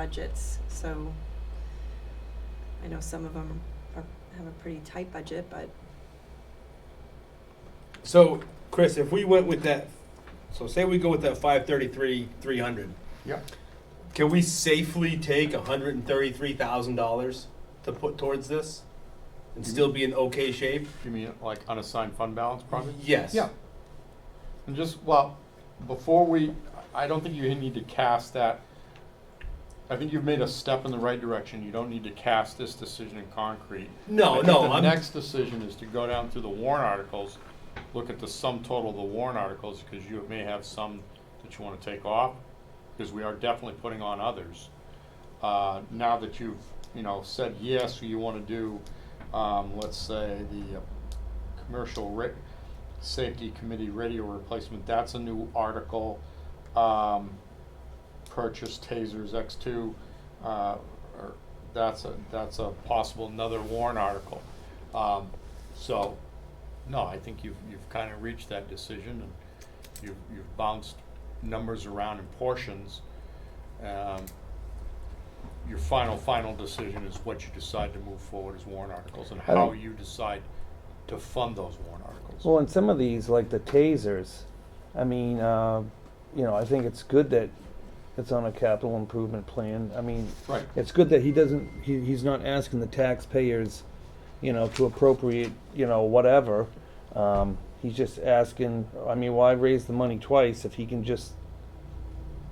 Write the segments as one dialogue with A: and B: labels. A: budgets, so I know some of them are, have a pretty tight budget, but
B: So, Chris, if we went with that, so say we go with that five thirty-three, three hundred,
C: Yep.
B: can we safely take hundred and thirty-three thousand dollars to put towards this? And
C: Mm-hmm.
B: still be in okay shape?
C: You mean like unassigned fund balance probably?
B: Yes.
C: Yeah. And just, well, before we, I don't think you need to cast that. I think you've made a step in the right direction. You don't need to cast this decision in concrete. I
B: No,
C: think
B: no,
C: The
B: I'm,
C: next decision is to go down through the warrant articles, look at the sum total of the warrant articles, because you may have some that you want to take off, because we are definitely putting on others. Uh, now that you've, you know, said yes, you want to do, um, let's say, the uh, commercial ra- safety committee radio replacement, that's a new article. Um, purchase tasers X two, uh, or that's a, that's a possible another warrant article. Um, so, no, I think you've, you've kind of reached that decision and you've, you've bounced numbers around in portions. Um, your final, final decision is what you decide to move forward as warrant articles and
D: I
C: how
D: think-
C: you decide to fund those warrant articles.
D: Well, and some of these, like the tasers, I mean, uh, you know, I think it's good that it's on a capital improvement plan. I mean,
C: Right.
D: it's good that he doesn't, he, he's not asking the taxpayers, you know, to appropriate, you know, whatever. Um, he's just asking, I mean, why raise the money twice if he can just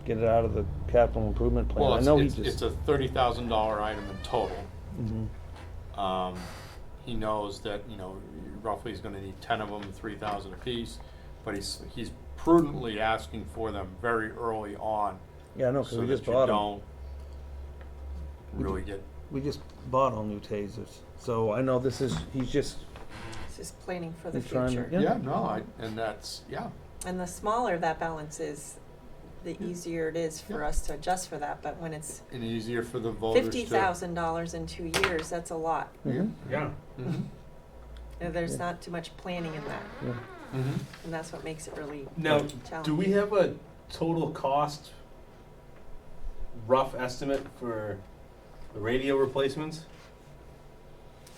D: get it out of the capital improvement plan?
C: Well,
D: I
C: it's,
D: know he
C: it's,
D: just-
C: it's a thirty thousand dollar item in total.
D: Mhm.
C: Um, he knows that, you know, roughly he's gonna need ten of them, three thousand apiece, but he's, he's prudently asking for them very early on.
D: Yeah, I know, 'cause
C: So
D: we
C: that
D: just
C: you
D: bought 'em.
C: don't really get,
D: We just bought all new tasers, so I know this is, he's just,
A: it's just planning for the
D: He's trying to-
A: future.
D: Yeah.
C: yeah, no, I, and that's, yeah,
A: And the smaller that balance is, the easier it is for
C: Yeah.
A: us to adjust for that, but when it's
C: and easier for the voters to.
A: fifty thousand dollars in two years, that's a lot.
C: Yeah.
D: mm-hmm,
B: yeah,
C: Mhm,
A: Now, There's
D: Yeah.
A: not too much planning in that,
D: yeah.
C: mhm.
A: and that's what makes it really
B: now,
A: challenging.
B: do we have a total cost rough estimate for the radio replacements?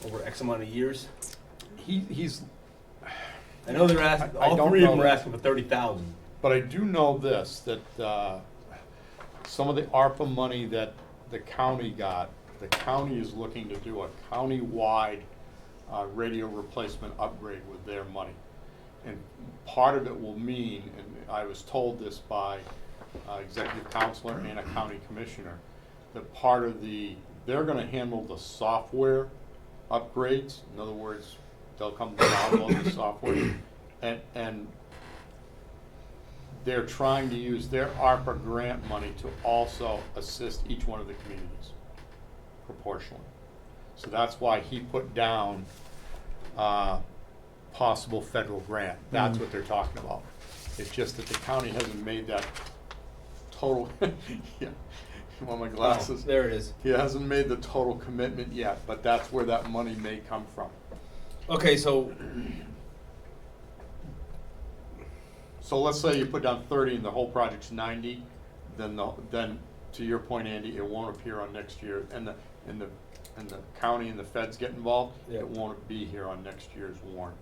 B: Over X amount of years?
C: He, he's,
B: I know they're asking,
C: I- I
B: all
C: don't
B: three of them
C: know
B: are
C: that.
B: asking for thirty thousand.
C: But I do know this, that uh, some of the ARPA money that the county got, the county is looking to do a county-wide uh, radio replacement upgrade with their money. And part of it will mean, and I was told this by uh, executive counselor and a county commissioner, that part of the, they're gonna handle the software upgrades. In other words, they'll come download the software and, and they're trying to use their ARPA grant money to also assist each one of the communities proportionally. So that's why he put down, uh, possible federal grant. That's what they're talking about. It's just that the county hasn't made that total, yeah, well, my glasses.
B: Oh, There it is.
C: He hasn't made the total commitment yet, but that's where that money may come from.
B: Okay, so
C: So let's say you put down thirty and the whole project's ninety, then the, then, to your point, Andy, it won't appear on next year, and the, and the, and the county and the feds get involved,
B: Yeah.
C: it won't be here on next year's warrant,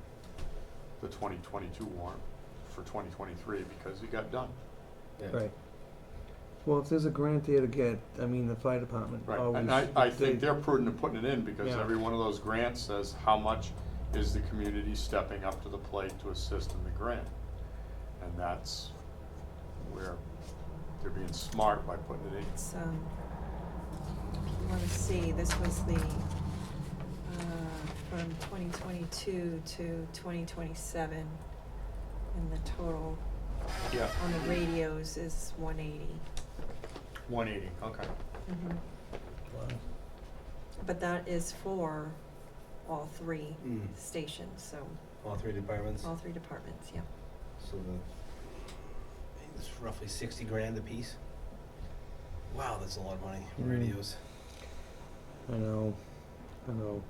C: the twenty twenty-two warrant for twenty twenty-three, because it got done.
D: Right. Well, if there's a grant there to get, I mean, the fire department
C: Right,
D: always.
C: and I, I think
D: they-
C: they're prudent in putting it in, because
D: Yeah.
C: every one of those grants says how much is the community stepping up to the plate to assist in the grant? And that's where they're being smart by putting it in.
A: It's, um, if you wanna see, this was the, uh, from twenty twenty-two to twenty twenty-seven. And the total
C: Yeah,
A: on the radios is one eighty.
C: one eighty, okay.
A: But that is for all three
B: Mm.
A: stations, so
B: All three departments.
A: all three departments, yeah.
B: So the it's roughly sixty grand a piece. Wow, that's a lot of money.
D: Mm.
B: Radios.
D: I know, I know.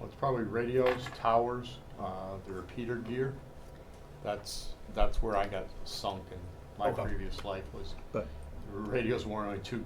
C: Well, it's probably radios, towers, uh, the repeater gear. That's, that's where I got sunk in my
B: Okay.
C: previous life was,
D: But
C: radios weren't only two